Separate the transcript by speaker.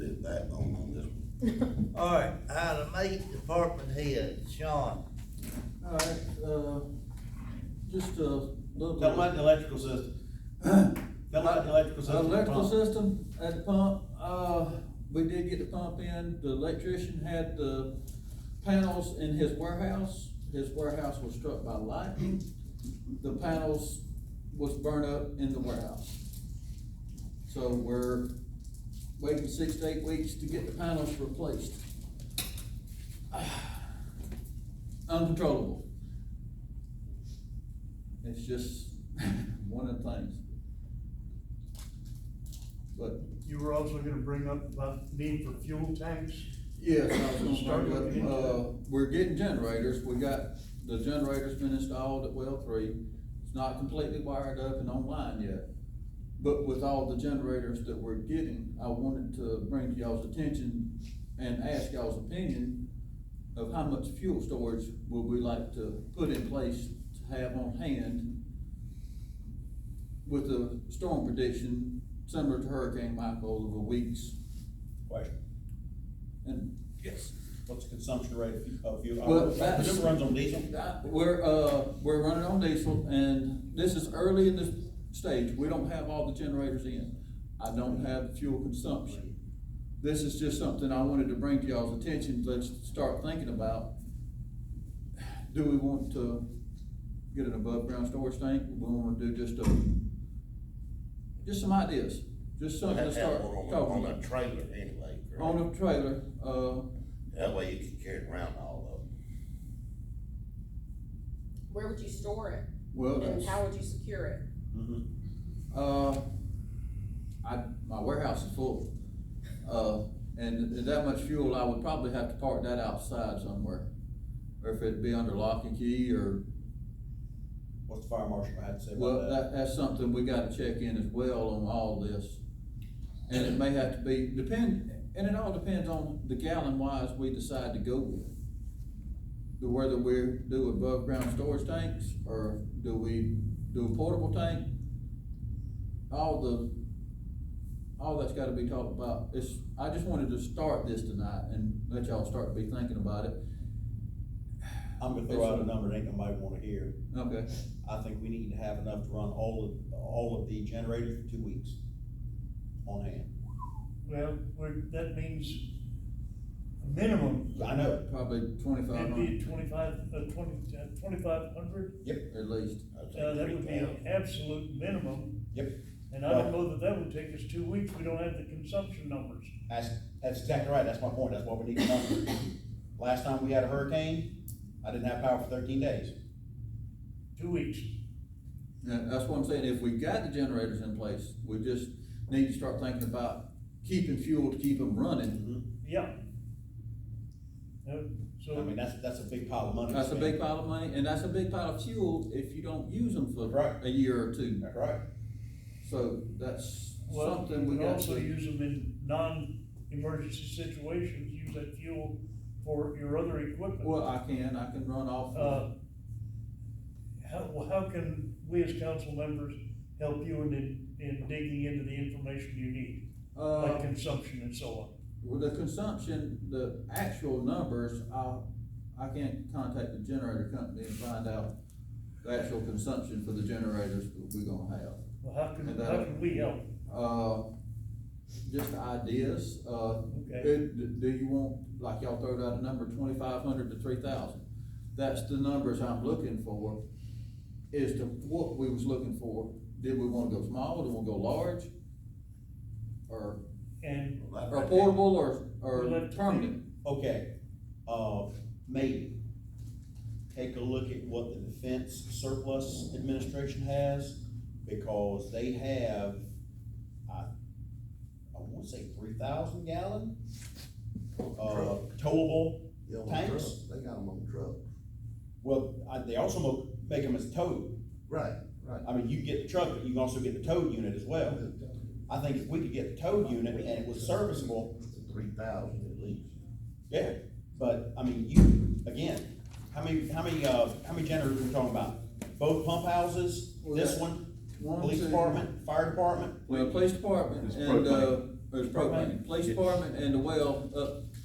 Speaker 1: All right, item eight, department head, Sean.
Speaker 2: All right, uh, just a little.
Speaker 3: Tell them about the electrical system. Tell them about the electrical system.
Speaker 2: Electrical system at the pump, uh, we did get the pump in, the electrician had the panels in his warehouse. His warehouse was struck by lightning, the panels was burnt up in the warehouse. So we're waiting six to eight weeks to get the panels replaced. Uncontrollable. It's just one of the things. But,
Speaker 4: You were also gonna bring up about need for fuel tanks.
Speaker 2: yes, I was gonna
Speaker 4: Start
Speaker 2: bring
Speaker 4: looking
Speaker 2: up,
Speaker 4: into
Speaker 2: uh,
Speaker 4: that.
Speaker 2: we're getting generators, we got, the generator's been installed at well three. It's not completely wired up and online yet. But with all the generators that we're getting, I wanted to bring to y'all's attention and ask y'all's opinion of how much fuel storage would we like to put in place to have on hand with the storm prediction similar to Hurricane Michael of a week's
Speaker 3: Question,
Speaker 2: And. Yes.
Speaker 3: what's the consumption rate of fuel- of fuel?
Speaker 2: Well,
Speaker 3: I
Speaker 2: that's-
Speaker 3: presume it runs on diesel?
Speaker 2: We're, uh, we're running on diesel and this is early in the stage. We don't have all the generators in. I don't have fuel consumption. This is just something I wanted to bring to y'all's attention. Let's start thinking about. Do we want to get an above ground storage tank? We wanna do just a, just some ideas, just something to
Speaker 5: Have
Speaker 2: start
Speaker 5: one on
Speaker 2: talking
Speaker 5: the- On
Speaker 2: about.
Speaker 5: a trailer anyway, correct?
Speaker 2: On a trailer, uh,
Speaker 5: That way you can carry it around all of them.
Speaker 6: Where would you store it?
Speaker 2: well,
Speaker 6: And
Speaker 2: that's.
Speaker 6: how would you secure it?
Speaker 3: Mhm.
Speaker 2: Uh, I, my warehouse is full. Uh, and th- that much fuel, I would probably have to park that outside somewhere. Or if it'd be under lock and key or,
Speaker 3: What's the fire marshal had to say
Speaker 2: well,
Speaker 3: about
Speaker 2: that,
Speaker 3: that?
Speaker 2: that's something we gotta check in as well on all this. And it may have to be, depend, and it all depends on the gallon wise we decide to go with. The Whether we do above ground storage tanks or do we do a portable tank? All the, all that's gotta be talked about. It's, I just wanted to start this tonight and let y'all start to be thinking about it.
Speaker 3: I'm gonna throw out a number that ain't nobody wanna hear.
Speaker 2: Okay,
Speaker 3: I think we need to have enough to run all of, all of the generators for two weeks on hand.
Speaker 4: Well, we're, that means a minimum,
Speaker 3: I know,
Speaker 2: probably twenty-five
Speaker 4: it'd be
Speaker 2: hundred
Speaker 4: twenty-five, uh, twenty, uh, twenty-five hundred.
Speaker 2: at least.
Speaker 5: I think
Speaker 4: Uh, that would be an
Speaker 5: 3,000.
Speaker 4: absolute minimum,
Speaker 3: yep,
Speaker 4: and I don't know that that would take us two weeks, we don't have the consumption numbers.
Speaker 3: That's, that's exactly right, that's my point, that's why we need a number. Last time we had a hurricane, I didn't have power for thirteen days.
Speaker 4: Two weeks,
Speaker 2: Yeah, that's what I'm saying, if we got the generators in place, we just need to start thinking about keeping fuel to keep them running.
Speaker 3: I
Speaker 4: yeah. Uh, So,
Speaker 3: mean, that's, that's a big pile of money. to
Speaker 2: That's a big
Speaker 3: spend.
Speaker 2: pile of money, and that's a big pile of fuel if you don't use them for
Speaker 3: Right.
Speaker 2: a year or two.
Speaker 3: That's right.
Speaker 2: So that's
Speaker 4: well,
Speaker 2: something
Speaker 4: you
Speaker 2: we
Speaker 4: can
Speaker 2: got
Speaker 4: also
Speaker 2: to.
Speaker 4: use them in non-emergency situations, use that fuel for your other equipment.
Speaker 2: Well, I can, I can run off.
Speaker 4: Uh, How, well, how can we as council members help you in, in digging into the information you need,
Speaker 2: Uh,
Speaker 4: like consumption and so on?
Speaker 2: Well, the consumption, the actual numbers, I, I can't contact the generator company and find out the actual consumption for the generators that we're gonna have.
Speaker 4: Well, how can,
Speaker 2: And, uh,
Speaker 4: how can we help?
Speaker 2: Uh, just ideas, uh.
Speaker 4: Okay.
Speaker 2: it- d- Do you want, like y'all throw out a number, twenty-five hundred to three thousand? That's the numbers I'm looking for, is to what we was looking for. Did we wanna go small, do we wanna go large? Or,
Speaker 4: And,
Speaker 5: Well, that
Speaker 2: or
Speaker 5: right
Speaker 2: portable, or,
Speaker 4: We'll
Speaker 2: or
Speaker 4: have to
Speaker 2: permanent?
Speaker 3: Okay, uh, maybe, take a look at what the Defense Surplus Administration has, because they have, I, I wanna say three thousand gallon, uh, towable
Speaker 7: Yeah, on the truck,
Speaker 3: tanks.
Speaker 7: they got them on the truck.
Speaker 3: Well, I, they also mo- make them as towed,
Speaker 7: Right, right.
Speaker 3: I mean, you get the truck, but you can also get the towed unit as well. I think if we could get the towed unit and it was serviceable,
Speaker 7: Three thousand at least.
Speaker 3: yeah, but, I mean, you, again, how many, how many, uh, how many generators are we talking about? Both pump houses,
Speaker 2: Well,
Speaker 3: this
Speaker 2: that-
Speaker 3: one,
Speaker 2: one,
Speaker 3: police
Speaker 2: two-
Speaker 3: department, fire department?
Speaker 2: Well, police department
Speaker 5: It's
Speaker 2: and, uh,
Speaker 5: propane.
Speaker 2: there's propane, police department and the well up